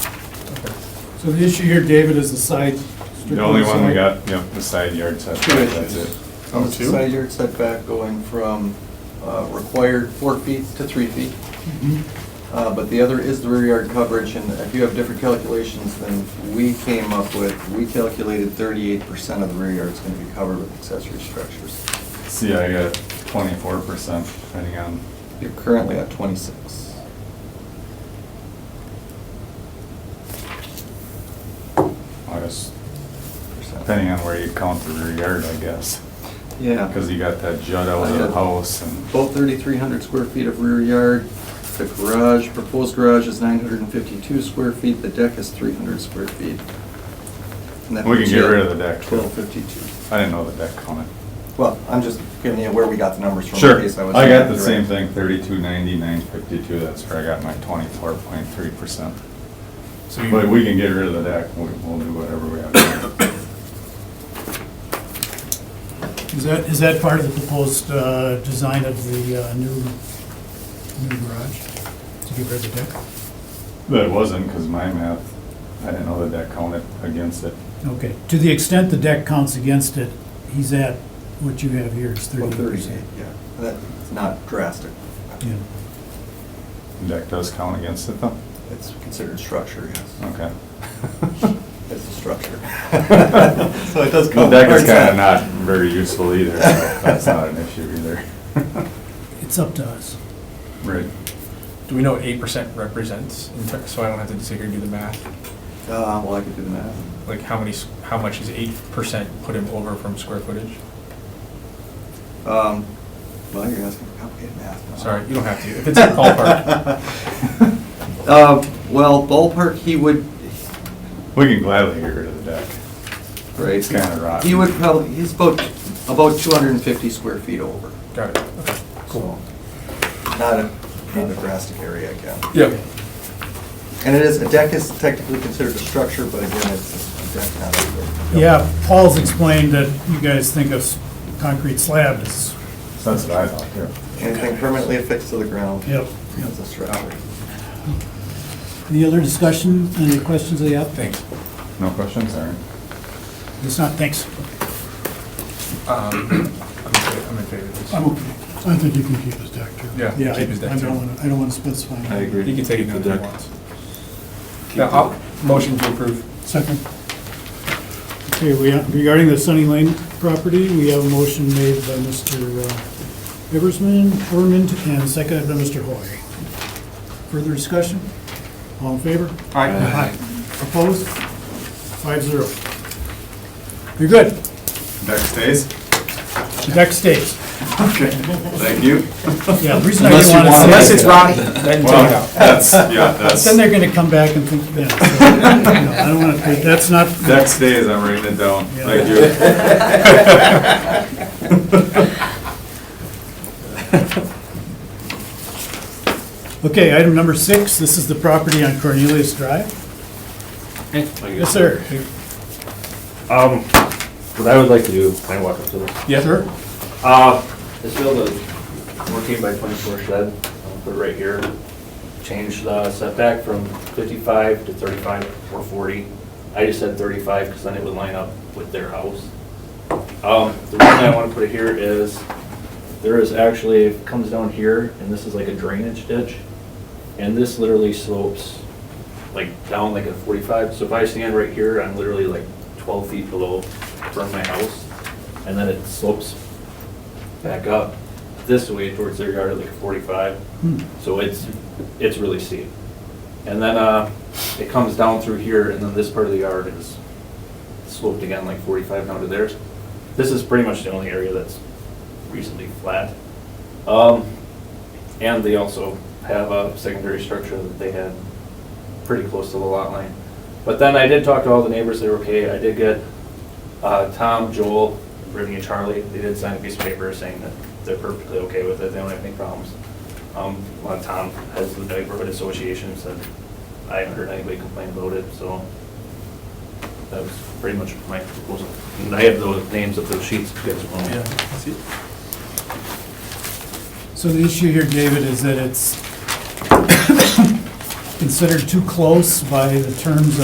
So the issue here, David, is the side. The only one we got, yeah, the side yard setback, that's it. Oh, It's a two? Side yard setback going from uh, required four feet to three feet. Mhm. Uh, But the other is the rear yard coverage, and if you have different calculations than we came up with, we calculated thirty-eight percent of the rear yard is gonna be covered with accessory structures. See, I got twenty-four percent, depending on, You're currently at twenty-six. I guess, depending on where you count the rear yard, I guess. Yeah. Because you got that jut out of the house and, Uh, Both thirty-three hundred square feet of rear yard. The garage, proposed garage is nine hundred and fifty-two square feet, the deck is three hundred square feet. And that We can puts get you at rid of the deck, too. Twelve fifty-two. I didn't know that that counted. Well, I'm just giving you where we got the numbers from. in Sure, case was- I got the same thing, thirty-two ninety, nine fifty-two, that's where I got my twenty-four point three percent. So But you, we can get rid of the deck, we- we'll do whatever we have to do. Is that, is that part of the proposed uh, design of the uh, new, new garage? To get rid of the deck? But it wasn't, because my math, I didn't know that that counted against it. Okay, to the extent the deck counts against it, he's at, what you have here is Well, thirty Thursday, percent. yeah. That's not drastic. Yeah, The Deck does count against it, though? It's considered structure, yes. Okay. It's a structure. So So it Oh. does The count. deck is kind of not very useful either, so that's not an issue either. it's up to us. Right. do we know what eight percent represents, in ter- so I don't have to sit here and do the math? Uh, well, I could do the math. Like, how many, s- how much is eight percent put him over from square footage? Um, well, you're asking for complicated math now. Sorry, you don't have to, if it's a ballpark. Uh, well, ballpark, he would, We can gladly get rid of the deck. right? It's kinda rotten. He would probably, he's about, about two hundred and fifty square feet over. Got it, okay, cool. So, Not a, not a drastic area again. Yep. And it is, a deck is technically considered a structure, but again, it's a deck, not a building. Yeah, Paul's explained that you guys think of concrete slab as, So That's what I thought, yeah. Anything permanently affixed to the ground. yep. Is a structure. Any other discussion, any questions of the applicant? Thanks. No questions, Aaron? It's not, thanks. Um, I'm in fa- I'm in favor of this. I'm okay. I think you can keep his deck, too. Yeah. Yeah, keep his deck I I too. don't want to, I don't want to specify. He can take it down if he wants. Yeah, I'll, motion to approve. Second. Okay, we, have- regarding the Sunny Lane property, we have a motion made by Mr. uh, Eversman, Herman, and seconded by Mr. Hoy. Further discussion? All in favor? Aye. Opposed? Five zero. You're good. Deck stays? The Deck stays. Okay, thank you. Yeah, the reason I didn't want to say. Unless it's rotten, then take it Well, out. that's, yeah, that's, Then they're going to come back and think, yeah. so, no, I don't want to, that's not, deck stays, I'm writing it down. Yeah. Thank you. okay, item number six, this is the property on Cornelius Drive. Yes, sir. Um, what I would like to do, can I walk up to this? Yes, sir. Uh, this build a fourteen by twenty-four shed, I'll put it right here. Change the setback from fifty-five to thirty-five or forty. I just said thirty-five because then it would line up with their house. Um, the reason I want to put it here is there is actually, it comes down here and this is like a drainage ditch. And this literally slopes like down like a forty-five. So if I stand right here, I'm literally like twelve feet below from my house. And then it slopes back up this way towards their yard at like forty-five. Hmm. So it's, it's really steep. And then, uh, it comes down through here and then this part of the yard is sloped again like forty-five down to theirs. This is pretty much the only area that's reasonably flat. Um, and they also have a secondary structure that they had pretty close to the lot line. But then I did talk to all the neighbors, they were okay. I did get uh, Tom, Joel, Brittany, and Charlie, they did sign a piece of paper saying that they're perfectly okay with it, they don't have any problems. Um, well, Tom has the neighborhood association, said, I haven't heard anybody complain about it, so that was pretty much my proposal. And I have those names of those sheets, if you guys want. So the issue here, David, is that it's considered too close by the terms